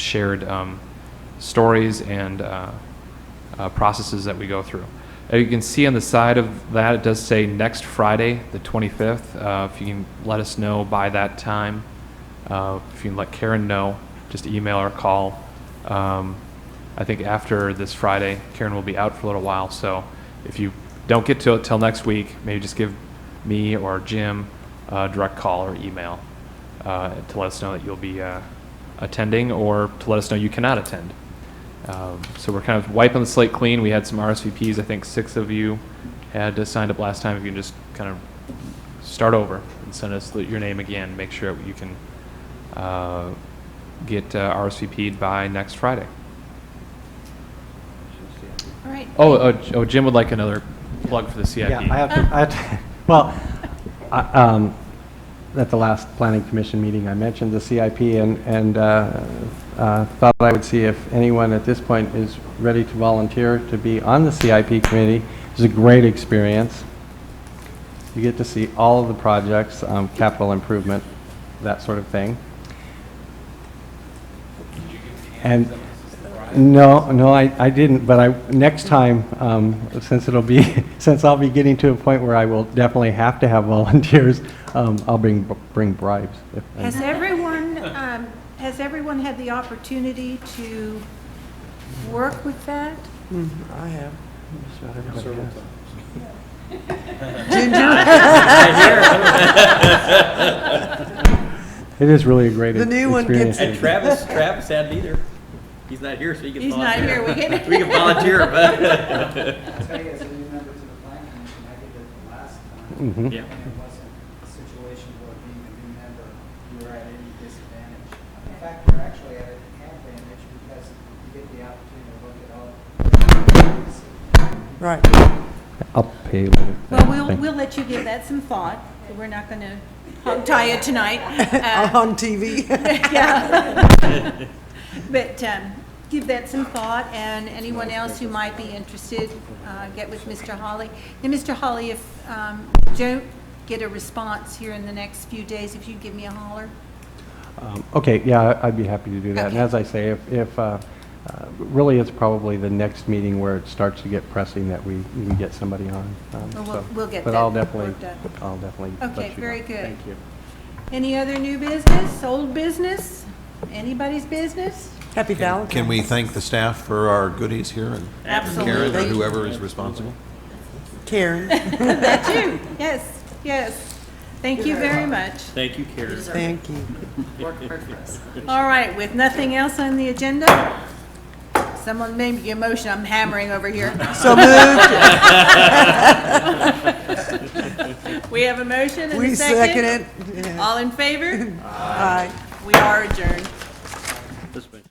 shared um, stories and uh, uh, processes that we go through. Uh, you can see on the side of that, it does say next Friday, the 25th. Uh, if you can let us know by that time, uh, if you can let Karen know, just email or call. Um, I think after this Friday, Karen will be out for a little while. So if you don't get to it till next week, maybe just give me or Jim a direct call or email uh, to let us know that you'll be uh, attending or to let us know you cannot attend. Um, So we're kind of wiping the slate clean. We had some RSVPs. I think six of you had uh, signed up last time. If you can just kind of start over and send us the- your name again, make sure you can uh, get uh, RSVP'd by next Friday. All right. Oh, oh, J- oh, Jim would like another plug for the CIP. Yeah, I have to, I have to, well, I, um, at the last planning commission meeting, I mentioned the CIP and, and, uh, uh, thought I would see if anyone at this point is ready to volunteer to be on the CIP committee. It's a great experience. You get to see all of the projects, um, capital improvement, that sort of thing. And, no, no, I, I didn't, but I, next time, um, since it'll be, since I'll be getting to a point where I will definitely have to have volunteers, um, I'll bring, bring bribes. if- Has everyone, um, has everyone had the opportunity to work with that? I have. Just about everybody has. It is really a great The experience. new one gets to- And Travis, Travis had neither. He's not here, so he can He's not volunteer. here, we can- We can volunteer, but, I'll tell you, as a new member to the planning commission, I did it the last time, Mhm. yeah. and it wasn't a situation where being a new member, you were at any disadvantage. In fact, you're actually at an advantage because you get the opportunity to look at all Right. I'll pay later. Well, we'll, we'll let you give that some thought. We're not going to hog tie it tonight. Uh, On TV. Yeah. But um, give that some thought, and anyone else who might be interested, uh, get with Mr. Holly. And Mr. Holly, if um, you don't get a response here in the next few days, if you give me a holler. Um, Okay, yeah, I- I'd be happy to do that. And Okay. as I say, if, if, uh, uh, really, it's probably the next meeting where it starts to get pressing that we, we can get somebody on. um, Well, we'll- so- we'll get But I'll that definitely, worked out. I'll definitely let you Okay, know. very good. Thank you. Any other new business, old business, anybody's business? Happy Valentine's. Can we thank the staff for our goodies here and Karen or Absolutely. whoever is responsible? Karen, That too, yes, yes. Thank you very much. Thank you, Karen. thank you. All right, with nothing else on the agenda, someone made a motion, I'm hammering over here. So moved, We have a motion and we a second. second it. All in favor? Aye. We are adjourned. This way.